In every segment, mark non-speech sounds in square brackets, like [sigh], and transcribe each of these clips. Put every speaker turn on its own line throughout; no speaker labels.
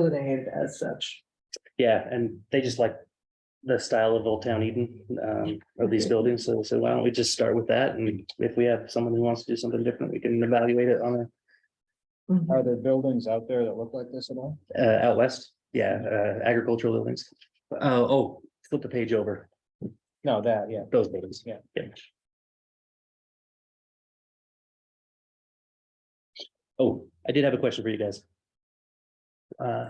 delineated as such.
Yeah, and they just like the style of Old Town Eden, um, of these buildings. So, so why don't we just start with that? And if we have someone who wants to do something different, we can evaluate it on
Mhm.
Are there buildings out there that look like this at all?
a, uh, out west. Yeah, uh, agricultural buildings. Uh, oh, flip the page over,
No, that, yeah.
those buildings.
Yeah.
Oh, I did have a question for you guys. Uh,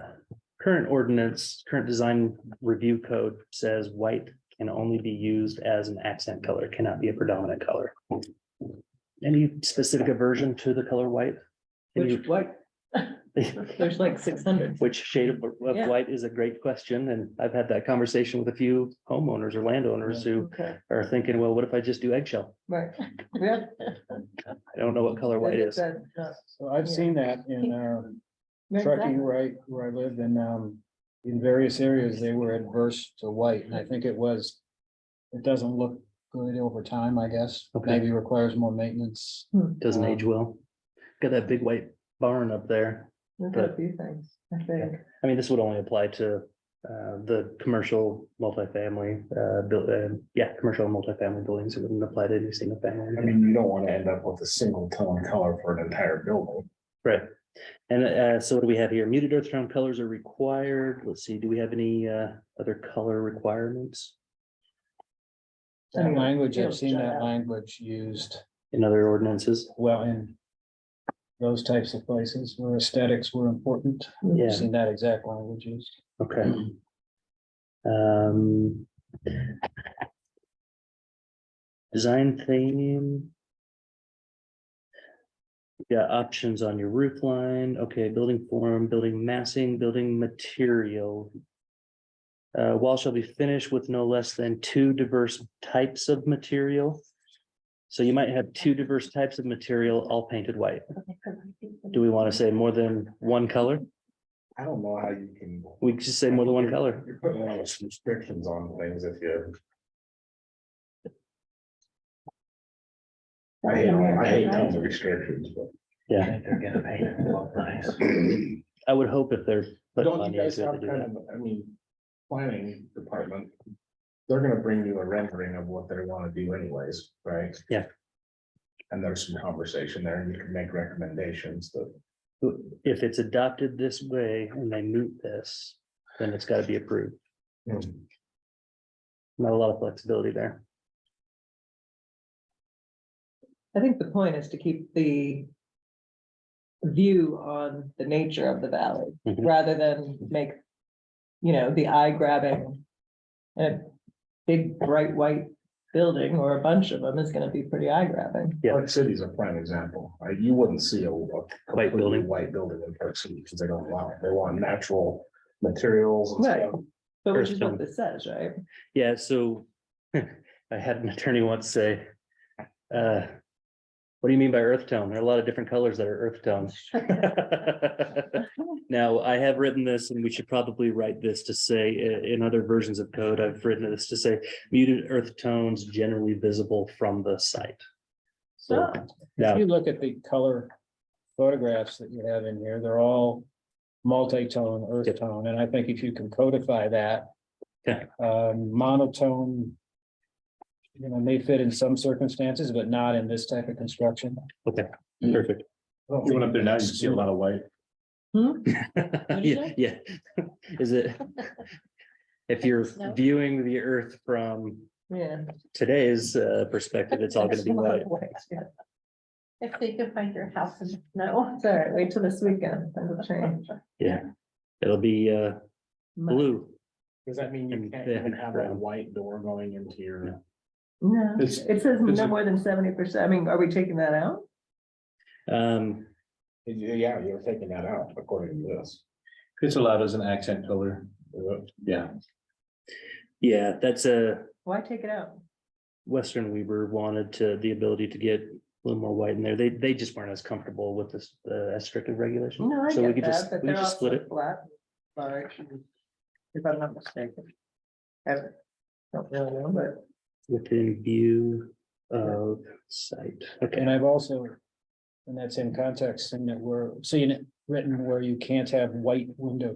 current ordinance, current design review code says white can only be used as an accent color, cannot be a predominant color. Any specific aversion to the color white? Can you-
Which, what, there's like six hundred.
[laughs] Which shade of, of
Yeah.
white is a great question, and I've had that conversation with a few homeowners or landowners who
Okay,
are thinking, well, what if I just do eggshell?
right. [laughs] Yeah.
I don't know what color white is.
That- that-
So I've
Yeah.
seen that in uh, Truckee, right, where I lived, and um, in various areas, they were adverse to white, and I think it was. It doesn't look good over time, I guess,
Okay.
maybe requires more maintenance.
Doesn't age well. Got that big white barn up there.
There's a few things, I think.
I mean, this would only apply to uh, the commercial multifamily, uh, buil- uh, yeah, commercial and multifamily buildings. It wouldn't apply to any single
I
family.
mean, you don't want to end up with a single tone color for an entire building.
Right. And uh, so what do we have here? Muted earth tone colors are required. Let's see, do we have any uh, other color requirements
That
Anyway,
language,
it'll
I've seen
shut
that
up.
language used
in other ordinances?
well in. Those types of places where aesthetics were important,
Yeah.
I've seen that exact language used.
Okay. Um. Design theme. Yeah, options on your roof line, okay, building form, building massing, building material. Uh, wall shall be finished with no less than two diverse types of material. So you might have two diverse types of material, all painted white. Do we want to say more than one color?
I don't know how you can.
We could just say more than one color.
You're putting all those restrictions on things if you. I hate, I hate tons of restrictions, but.
Yeah.
They're gonna paint it look [clears throat] nice.
I would hope if they're. putting
Don't you
money
guys
into it,
have
they do
kind
that.
of, I mean, planning department, they're gonna bring you a rendering of what they wanna do anyways, right?
Yeah.
And there's some conversation there, and you can make recommendations that
If it's adopted this way and they meet this, then it's gotta be approved. Not a lot of flexibility there.
I think the point is to keep the view on the nature of the valley,
Mhm.
rather than make, you know, the eye grabbing. A big bright white building or a bunch of them is gonna be pretty eye grabbing.
Yeah.
Park City's a prime example. Uh, You wouldn't see a a completely
building.
White building in Park City because they don't allow it. They want natural materials and
Right.
stuff.
But which
First
is what
time.
this says, right?
Yeah, so [laughs] I had an attorney once say, uh, what do you mean by earth tone? There are a lot of different colors that are earth
[laughs]
tone. Now, I have written this and we should probably write this to say, i- in other versions of code, I've written this to say muted earth tones generally visible from the site.
So,
Yeah.
If you look at the color photographs that you have in here, they're all multi-tone, earth tone, and I think if you can codify that.
Yeah.
um, monotone. You know, may fit in some circumstances, but not in this type of construction.
Mm.
Perfect.
You went up there now, you see a lot of white.
[laughs]
What'd you
Yeah, yeah. [laughs] Is it?
[laughs]
If you're
Snow?
viewing the earth from
yeah.
today's uh, perspective, it's all gonna be white.
[laughs]
If they could find your house in the snow.
[laughs] It's all right, wait till this weekend, that'll change.
Yeah. It'll be uh, blue.
Does that mean you
And
can't
they
even
have
have that
brown.
white door going into your?
No, it
It's-
says
it's
no
a-
more than seventy percent. I mean, are we taking that out?
Um,
Yeah, you're taking that out according to this.
It's allowed as an accent color.
Yeah.
yeah, that's a
Why take it out?
Western Weaver wanted to, the ability to get a little more white in there. They, they just weren't as comfortable with this, uh, as strict of regulation.
No, I
So we
get
could just,
that, but
we
they're
could just split
also
it.
flat. large, and- If I'm not mistaken. I Don't really know, but
Within view of sight. Okay,
And I've also, and that's in context, and that we're seeing it written where you can't have white window